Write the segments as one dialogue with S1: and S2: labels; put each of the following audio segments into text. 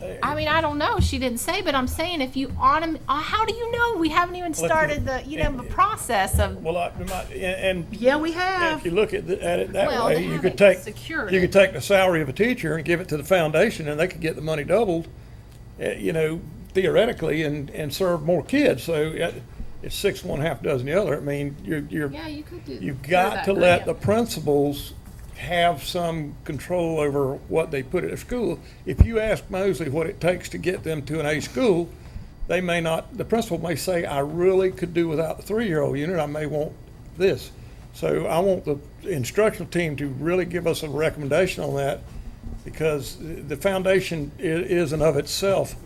S1: there.
S2: I mean, I don't know. She didn't say, but I'm saying if you autom- uh, how do you know? We haven't even
S1: at-
S2: started the, you know, the process of,
S1: Well, I, my, and, and
S3: Yeah, we
S1: if
S3: have.
S1: you look at, the- at it that
S2: Well,
S1: way,
S2: they
S1: you
S2: haven't
S1: could take,
S2: secured
S1: you
S2: it.
S1: could take the salary of a teacher and give it to the foundation and they could get the money doubled, eh, you know, theoretically and, and serve more kids. So eh, it's six, one half dozen the other. I mean, you're, you're,
S2: yeah, you could do.
S1: You've got to let the principals have some control over what they put at a school. If you ask Mosley what it takes to get them to an A school, they may not, the principal may say, I really could do without the three-year-old unit, I may want this. So I want the instructional team to really give us a recommendation on that because the foundation i- is and of itself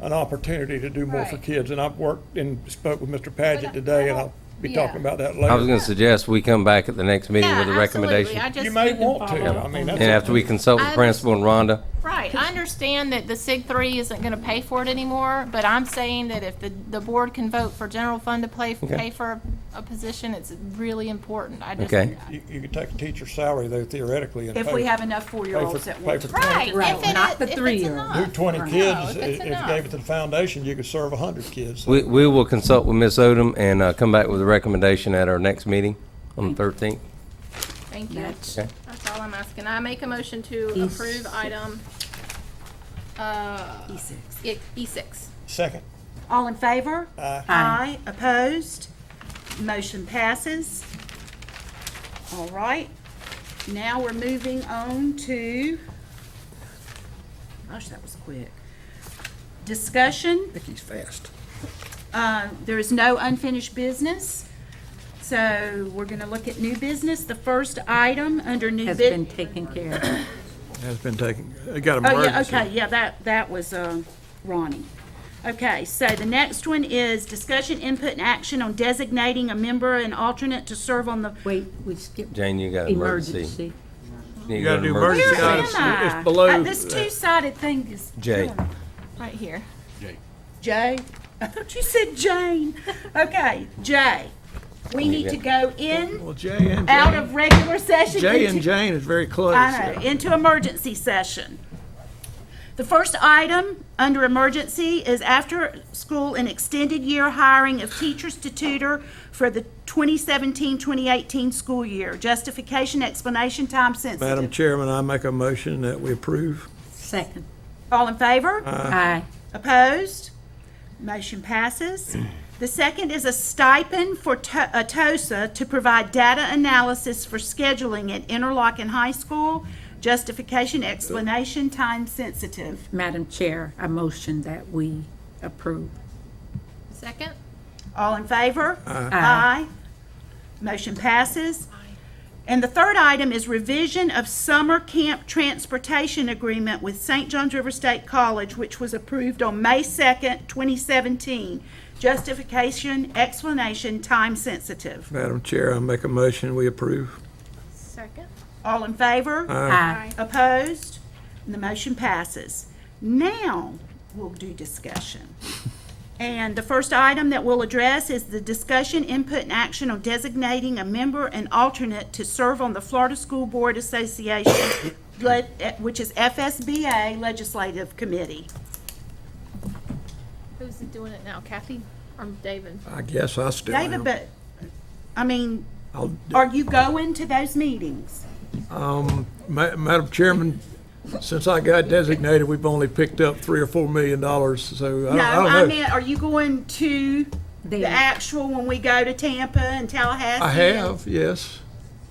S1: an opportunity to do more for
S2: Right.
S1: kids. And I've worked and spoke with Mr.
S2: But I-
S1: Paget today and
S2: I
S1: I'll be
S2: don't-
S1: talking about that later.
S4: I was going to suggest we come back at the next meeting
S2: Yeah,
S4: with a
S2: absolutely.
S4: recommendation.
S2: I just.
S1: You may
S2: didn't
S1: want to,
S2: follow.
S1: I mean, that's,
S4: And after we consult
S2: I
S4: with principal and Rhonda,
S2: Right, I understand that the SIG three isn't gonna pay for it anymore, but I'm saying that if the, the board can vote for general fund to play, pay for a position, it's really important. I just.
S4: Okay.
S1: you, you could take a teacher's salary though theoretically and
S3: If
S1: pay-
S3: we have enough
S1: pay
S3: four-year-olds
S1: for,
S3: that
S1: pay
S3: want
S1: for
S3: to.
S1: 20
S2: Right, if
S5: Right,
S2: it is-
S5: not the
S2: if it's
S5: three-year-old.
S2: enough.
S1: do twenty
S2: No,
S1: kids,
S2: if
S1: i-
S2: it's
S1: if you
S2: enough.
S1: gave it to the foundation, you could serve hundred kids. So
S4: we, we will consult with Ms. Odom and uh, come back with a recommendation at our next meeting on the 13th.
S2: Thank you.
S5: That's-
S4: Okay.
S2: That's all I'm asking. I make a motion to
S5: E6.
S2: approve item, uh,
S5: E6.
S2: E- E6.
S1: Second,
S3: All in favor?
S1: Aye.
S3: Aye. Opposed? Motion passes. All right. Now we're moving on to, gosh, that was quick. Discussion.
S1: Vicky's fast.
S3: Uh, There is no unfinished business. So we're going to look at new business. The first item under new
S5: Has
S3: bid.
S5: been taken care of.
S1: Has been taken, I got
S3: Oh, yeah,
S1: emergency.
S3: okay, yeah, that, that was uh, Ronnie. Okay, so the next one is discussion, input, and action on designating a member and alternate to serve on the,
S5: Wait, we skipped.
S4: Jane, you got uh, emergency.
S5: Emergency.
S4: You
S1: gotta do emergency
S3: where am
S1: items.
S3: I?
S1: It's below-
S3: Uh, This two-sided thing is.
S4: Jay.
S2: Right here.
S3: Jay? I thought you said Jane. Okay, Jay, we need to go in,
S1: Well, Jay and,
S3: out of regular session.
S1: Jay
S3: into-
S1: and Jane is very close.
S3: I know, into emergency session. The first item under emergency is after-school and extended year hiring of teachers to tutor for the 2017-2018 school year. Justification, explanation, time
S6: Madam
S3: sensitive.
S6: Chairman, I make a motion that we approve.
S5: Second.
S3: All in favor?
S2: Uh-huh.
S5: Aye.
S3: Opposed? Motion passes. The second is a stipend for To- uh, TOSA to provide data analysis for scheduling at Interlochen High School. Justification, explanation, time sensitive.
S5: Madam Chair, I motion that we approve.
S2: Second?
S3: All in favor? Aye. Motion passes. And the third item is revision of summer camp transportation agreement with St. John's River State College, which was approved on May 2nd, 2017. Justification, explanation, time sensitive.
S6: Madam Chair, I make a motion, we approve.
S2: Second.
S3: All in favor?
S5: Aye.
S3: Opposed? And the motion passes. Now, we'll do discussion. And the first item that we'll address is the discussion, input, and action on designating a member and alternate to serve on the Florida School Board Association, le- eh, which is FSBA Legislative Committee.
S2: Who's doing it now, Kathy or David?
S6: I guess I still
S3: David,
S6: am.
S3: but, I mean,
S6: I'll-
S3: are you going to those meetings?
S6: Ma- Madam Chairman, since I got designated, we've only picked up three or four million dollars, so I
S3: No,
S6: don't- I don't know.
S3: I meant, are you going to the
S5: There.
S3: actual when we go to Tampa and Tallahassee?
S6: I have, yes.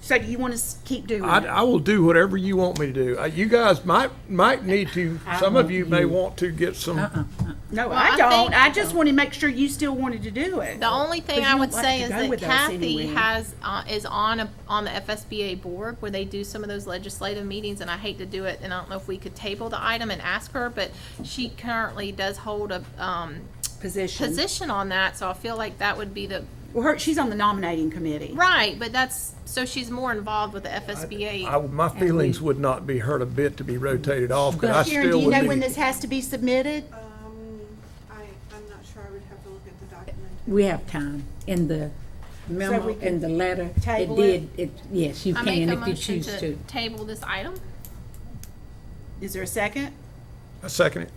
S3: So do you want to keep doing
S6: I,
S3: it?
S6: I will do whatever you want me to do. Uh, You guys might, might need to, some of you may want to get
S3: Uh-uh.
S6: some,
S3: No,
S2: I
S3: I don't.
S2: think-
S3: I just want to make sure you still wanted to do it.
S2: The only thing
S3: But
S2: I
S3: you
S2: would
S3: don't like
S2: say
S3: to
S2: is
S3: go
S2: that
S3: with us
S2: Kathy
S3: anywhere.
S2: has, uh, is on, a- on the FSBA board where they do some of those legislative meetings, and I hate to do it, and I don't know if we could table the item and ask her, but she currently does hold a, um,
S3: Position.
S2: position on that, so I feel like that would be the,
S3: Well, her, she's on the nominating committee.
S2: right, but that's, so she's more involved with the FSBA.
S6: I- my feelings would not be hurt a bit to be rotated off, because I
S3: But
S6: still
S3: Sharon,
S6: would
S3: do
S6: be.
S3: you know when this has to be submitted?
S7: Um, I, I'm not sure, I would have to look at the document.
S5: We have time. In the memo,
S3: we can
S5: in the letter, it
S3: table it?
S5: did, it, yes, you
S2: I make
S5: can
S2: a
S5: if you
S2: motion
S5: choose
S2: to
S5: to.
S2: table this item.
S3: Is there a second?
S6: I second it.